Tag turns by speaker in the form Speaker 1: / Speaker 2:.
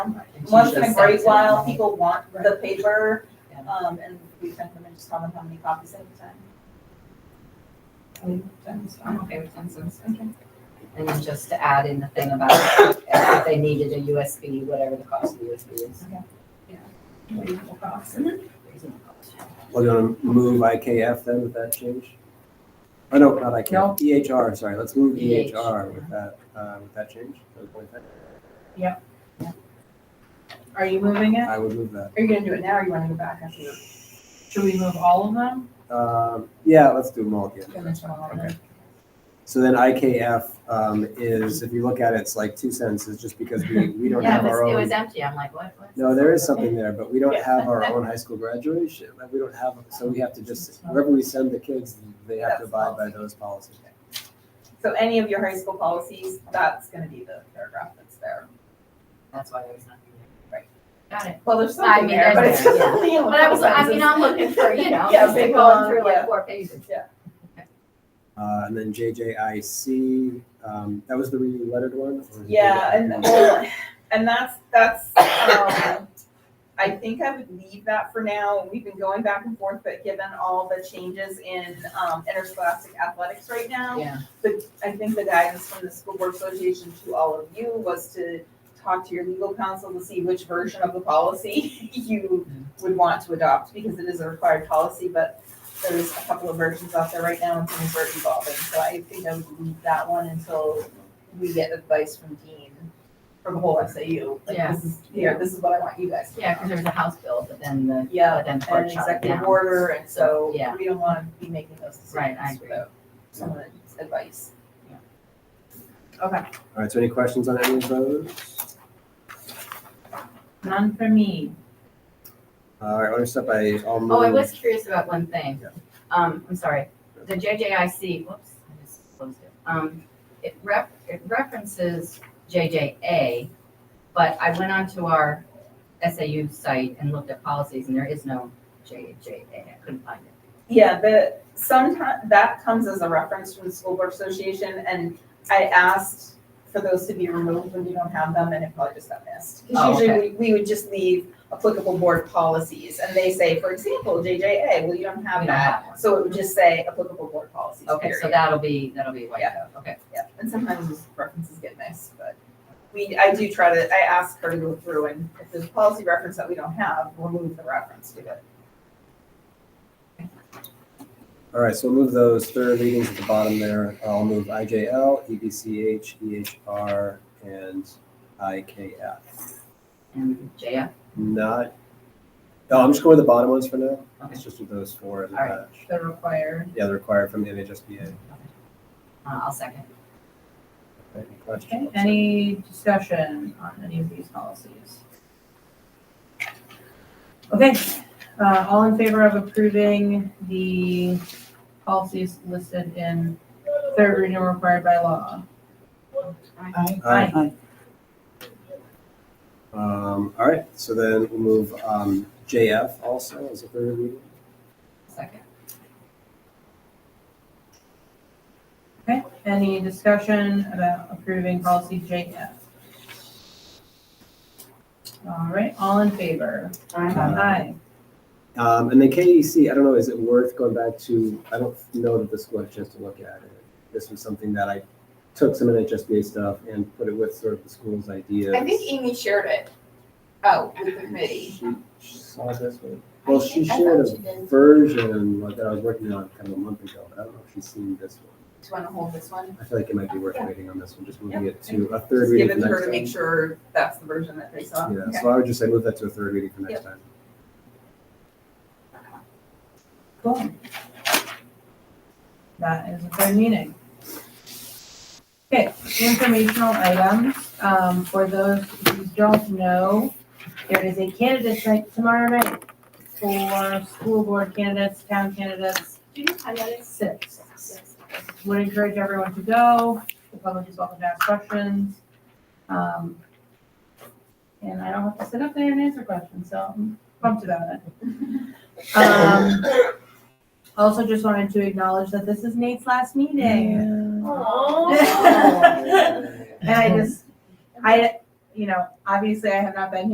Speaker 1: Once in a great while, people want the paper, um, and we print them and just tell them how many copies at a time.
Speaker 2: I'm okay with ten cents. And then just to add in the thing about if they needed a USB, whatever the cost of the USB is.
Speaker 1: Reasonable cost.
Speaker 3: We're gonna move IKF then with that change? Oh, no, not IKF, EHR, sorry, let's move
Speaker 2: EH.
Speaker 3: EHR with that, uh, with that change. So point that-
Speaker 4: Are you moving it?
Speaker 3: I would move that.
Speaker 1: Are you gonna do it now or you wanna go back after? you-
Speaker 4: Should we move all of them?
Speaker 3: Um, yeah, let's do them all again.
Speaker 1: finish them all over?
Speaker 3: Okay. So then IKF, um, is, if you look at it, it's like two sentences, just because we, we don't
Speaker 2: Yeah,
Speaker 3: have
Speaker 2: it
Speaker 3: our
Speaker 2: was, it
Speaker 3: own.
Speaker 2: was empty. I'm like, what, what?
Speaker 3: No, there is something there, but we don't have our own high school graduation, like, we don't have, so we have to just, wherever we send the kids, they have to abide by those policies.
Speaker 1: So any of your high school policies, that's gonna be the paragraph that's there.
Speaker 2: That's why there was nothing there.
Speaker 1: Right.
Speaker 2: Got it.
Speaker 1: Well, there's
Speaker 2: I
Speaker 1: something
Speaker 2: mean,
Speaker 1: there, but
Speaker 2: there's-
Speaker 1: it's just.
Speaker 2: yeah.
Speaker 1: only a
Speaker 2: But I was,
Speaker 1: couple
Speaker 2: I mean, I'm looking for, you know,
Speaker 1: Yeah,
Speaker 2: just
Speaker 1: big
Speaker 2: going
Speaker 1: one,
Speaker 2: through like
Speaker 1: yeah.
Speaker 2: four pages.
Speaker 3: Uh, and then JJIC, um, that was the re-lettered one? or-
Speaker 1: Yeah, and well, and that's that's um, I think I would leave that for now. We've been going back and forth, but given all the changes in um, interscholastic athletics right now,
Speaker 2: Yeah.
Speaker 1: but I think the guidance from the school board association to all of you was to talk to your legal counsel to see which version of the policy you would want to adopt because it is a required policy, but there's a couple of versions out there right now and things are evolving. So I think I would leave that one until we get advice from Dean from the whole SAU. Like
Speaker 2: Yeah.
Speaker 1: this is, here, this is what I want you guys to do.
Speaker 2: Yeah, because there was a house bill, but then the,
Speaker 1: Yeah,
Speaker 2: but then the
Speaker 1: And
Speaker 2: court shut it
Speaker 1: executive
Speaker 2: down.
Speaker 1: order, and so
Speaker 2: Yeah.
Speaker 1: we don't want to be making those
Speaker 2: Right, I
Speaker 1: decisions
Speaker 2: agree.
Speaker 1: without someone's advice.
Speaker 3: All right, so any questions on any of those?
Speaker 4: None for me.
Speaker 3: All right, other stuff I, I'll move.
Speaker 2: Oh, I was curious about one thing.
Speaker 3: Yeah.
Speaker 2: Um, I'm sorry, the JJIC, whoops, I just closed it. Um, it ref, it references JJA, but I went onto our SAU site and looked at policies and there is no JJA. I couldn't find it.
Speaker 1: Yeah, the, sometimes, that comes as a reference from the school board association, and I asked for those to be removed when we don't have them, and it probably just got missed.
Speaker 2: Oh,
Speaker 1: Because usually, we, we would just leave applicable board policies, and they say, for example, JJA, well, you don't have
Speaker 2: We don't
Speaker 1: that.
Speaker 2: have one.
Speaker 1: So it would just say applicable board policies,
Speaker 2: Okay, so
Speaker 1: period.
Speaker 2: that'll be, that'll be wiped out, okay.
Speaker 1: Yeah, and sometimes those references get missed, but we, I do try to, I ask her to go through, and if there's a policy reference that we don't have, remove the reference to it.
Speaker 3: All right, so we'll move those third readings at the bottom there. I'll move IJL, EBCH, EHR, E and IKF.
Speaker 2: And JF,
Speaker 3: Not, no, I'm just going with the bottom ones for now.
Speaker 2: okay.
Speaker 3: It's just with those four as a
Speaker 2: All right.
Speaker 3: batch.
Speaker 1: The required.
Speaker 3: Yeah, they're required from the NHSBA.
Speaker 2: Uh, I'll second.
Speaker 3: Any
Speaker 4: Okay,
Speaker 3: questions?
Speaker 4: any discussion on any of these policies? Okay, uh, all in favor of approving the policies listed in third reading required by law?
Speaker 3: Aye. Um, all right, so then we'll move, um, JF also as a third reading.
Speaker 2: Second.
Speaker 4: Okay, any discussion about approving policy JF? All right, all in favor?
Speaker 2: Uh,
Speaker 4: Aye.
Speaker 3: Um, and the KEC, I don't know, is it worth going back to, I don't know that the school had a chance to look at it. This was something that I took some NHSBA stuff and put it with sort of the school's ideas.
Speaker 5: I think Amy shared it. Oh, with the committee.
Speaker 3: She she saw this one. Well, she
Speaker 5: I
Speaker 3: shared
Speaker 5: thought she
Speaker 3: a
Speaker 5: did.
Speaker 3: version like, that I was working on kind of a month ago, but I don't know if she's seen this one.
Speaker 5: Do you want to hold this one?
Speaker 3: I feel like it might be worth waiting on this one, just moving it
Speaker 1: Yeah.
Speaker 3: to a third
Speaker 1: Just
Speaker 3: reading
Speaker 1: give
Speaker 3: for
Speaker 1: it to her
Speaker 3: next
Speaker 1: to make
Speaker 3: time.
Speaker 1: sure that's the version that they saw.
Speaker 3: Yeah,
Speaker 1: Okay.
Speaker 3: so I would just say move that to a third reading for next
Speaker 1: Yep.
Speaker 3: time.
Speaker 4: Cool. That is the third meeting. Okay, informational items, um, for those who don't know, there is a candidate night tomorrow night for school board candidates, town candidates,
Speaker 5: Do you know how that is?
Speaker 4: six. Would encourage everyone to go, the public is welcome to ask questions. Um, and I don't have to sit up there and answer questions, so I'm pumped about it. Um, also just wanted to acknowledge that this is Nate's last meeting.
Speaker 5: Oh.
Speaker 4: And I just, I, you know, obviously I have not been here